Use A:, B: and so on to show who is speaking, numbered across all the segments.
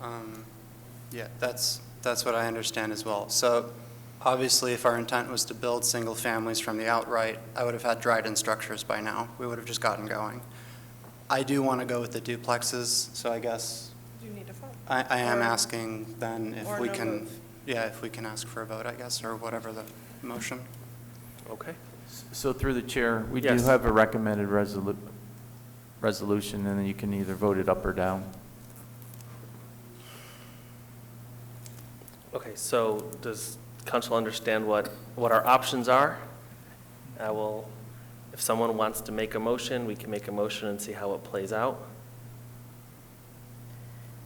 A: Um, Yeah, that's, that's what I understand as well. So obviously, if our intent was to build single families from the outright, I would have had Dryden structures by now. We would have just gotten going. I do want to go with the duplexes, so I guess
B: You need a vote.
A: I, I am
B: Or-
A: asking then if
B: or
A: we
B: no
A: can,
B: move.
A: yeah, if we can ask for a vote, I guess, or whatever the motion.
C: Okay.
D: So through the chair, we do
C: Yes.
D: have a recommended resolu, resolution, and then you can either vote it up or down.
C: Okay, so does council understand what, what our options are? I will, if someone wants to make a motion, we can make a motion and see how it plays out.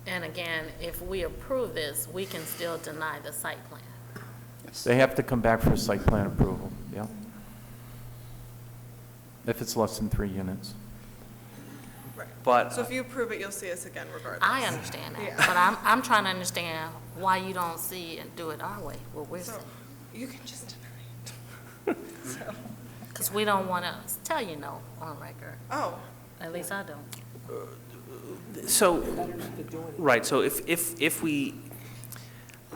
E: And again, if we approve this, we can still deny the site plan.
A: Yes.
D: They have to come back for site plan approval, yeah. If it's less than three units.
B: So
C: But,
B: if you approve it, you'll see us again regardless.
E: I understand that,
B: Yeah.
E: but I'm, I'm trying to understand why you don't see and do it our way, what we're
B: So
E: saying.
B: you can just deny it. So-
E: Because we don't want to tell you no on record,
B: Oh,
E: at least I don't.
C: so, right, so if, if, if we,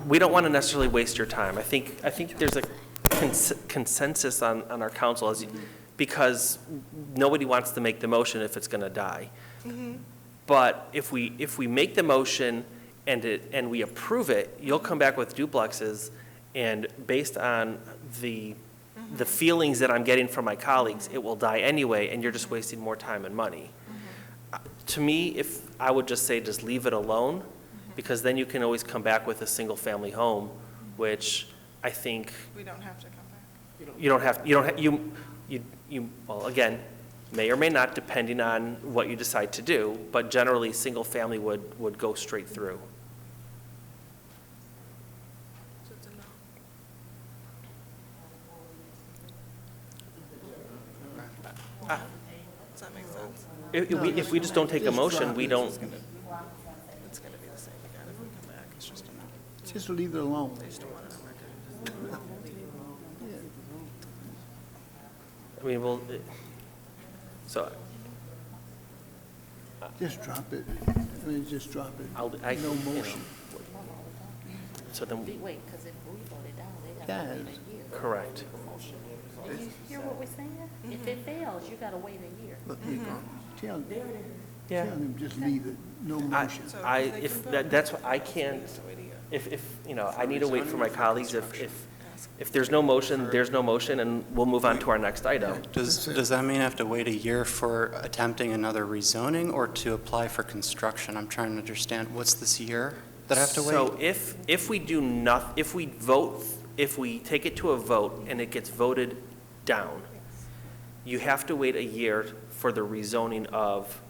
C: we don't want to necessarily waste your time. I think, I think there's a cons- consensus on, on our council, as you- because nobody wants to make the motion if it's going to die. But if we, if we make the motion and it, and we approve it, you'll come back with duplexes, and based on the, the feelings that I'm getting from my colleagues, it will die anyway, and you're just wasting more time and money. Uh, To me, if, I would just say just leave it alone, because then you can always come back with a single-family home, which I think
B: we don't have to come back.
C: you don't have, you don't, ha- you, you, you, well, again, may or may not, depending on what you decide to do, but generally, single family would, would go straight through.
B: Does that make sense?
C: If, if we, if we just don't take a motion, we don't,
B: It's going to be the same again if we come back. It's just a no.
F: Just leave it alone.
B: They just don't want it on record.
C: I mean, we'll, so,
F: Just drop it. I mean, just drop it.
C: I'll, I.
F: No
C: you know,
F: motion.
C: So then,
E: Wait, because if we vote it down, they
F: gotta wait a Yes.
E: year.
C: correct.
E: you hear what we're saying? If
B: Mm-hmm.
E: it fails, you gotta wait a year.
F: But you can tell, tell them just leave it, no
C: I,
F: motion.
C: I, if, that- that's, what I can't, if, if, you know, I need to wait for my colleagues, if, if, if there's no motion, there's no motion, and we'll move on to our next item.
A: Does, does that mean I have to wait a year for attempting another rezoning or to apply for construction? I'm trying to understand, what's this year that I have to wait?
C: So if, if we do noth, if we vote, if we take it to a vote and it gets voted down, you have to wait a year for the rezoning of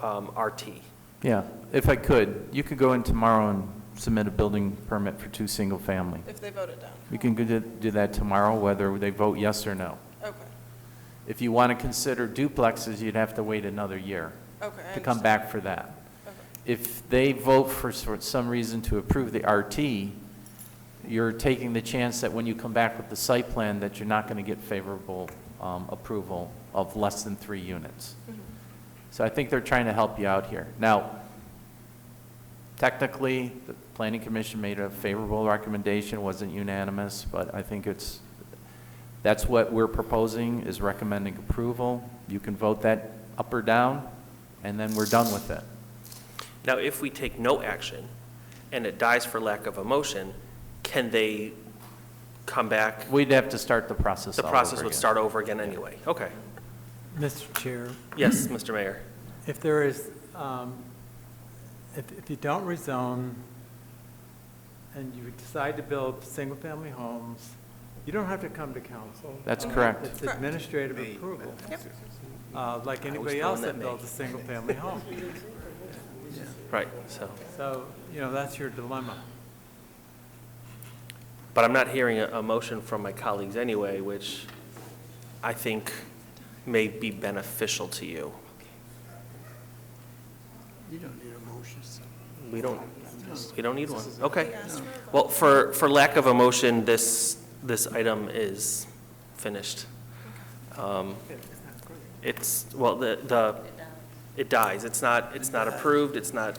C: um, RT.
D: Yeah, if I could, you could go in tomorrow and submit a building permit for two single-family.
B: If they vote it down.
D: You can go do- do that tomorrow, whether they vote yes or no.
B: Okay,
D: If you want to consider duplexes, you'd have to wait another year
B: okay. I
D: to come
B: understand.
D: back for that.
B: Okay.
D: If they vote for sor- some reason to approve the RT, you're taking the chance that when you come back with the site plan, that you're not going to get favorable um, approval of less than three units. So I think they're trying to help you out here. Now, technically, the planning commission made a favorable recommendation, wasn't unanimous, but I think it's, that's what we're proposing, is recommending approval. You can vote that up or down, and then we're done with it.
C: Now, if we take no action and it dies for lack of a motion, can they come back?
D: We'd have to start the process
C: The
D: all over
C: process would
D: again.
C: start over again anyway. Okay.
G: Mr. Chair,
C: Yes, Mr. Mayor.
G: if there is, um, if if you don't rezone and you decide to build single-family homes, you don't have to come to council. Um,
D: That's correct.
G: It's administrative approval, uh, like
C: throwing
G: anybody else
C: that
G: that builds a single-family home.
C: Right, so,
G: So, you know, that's your dilemma.
C: but I'm not hearing a, a motion from my colleagues anyway, which I think may be beneficial to you.
F: You don't need a motion.
C: We don't, we don't need one. Okay.
B: Ask for a vote.
C: Well, for, for lack of a motion, this, this item is finished. Um, It's, well, the, the, it dies. It's not, it's not approved, it's not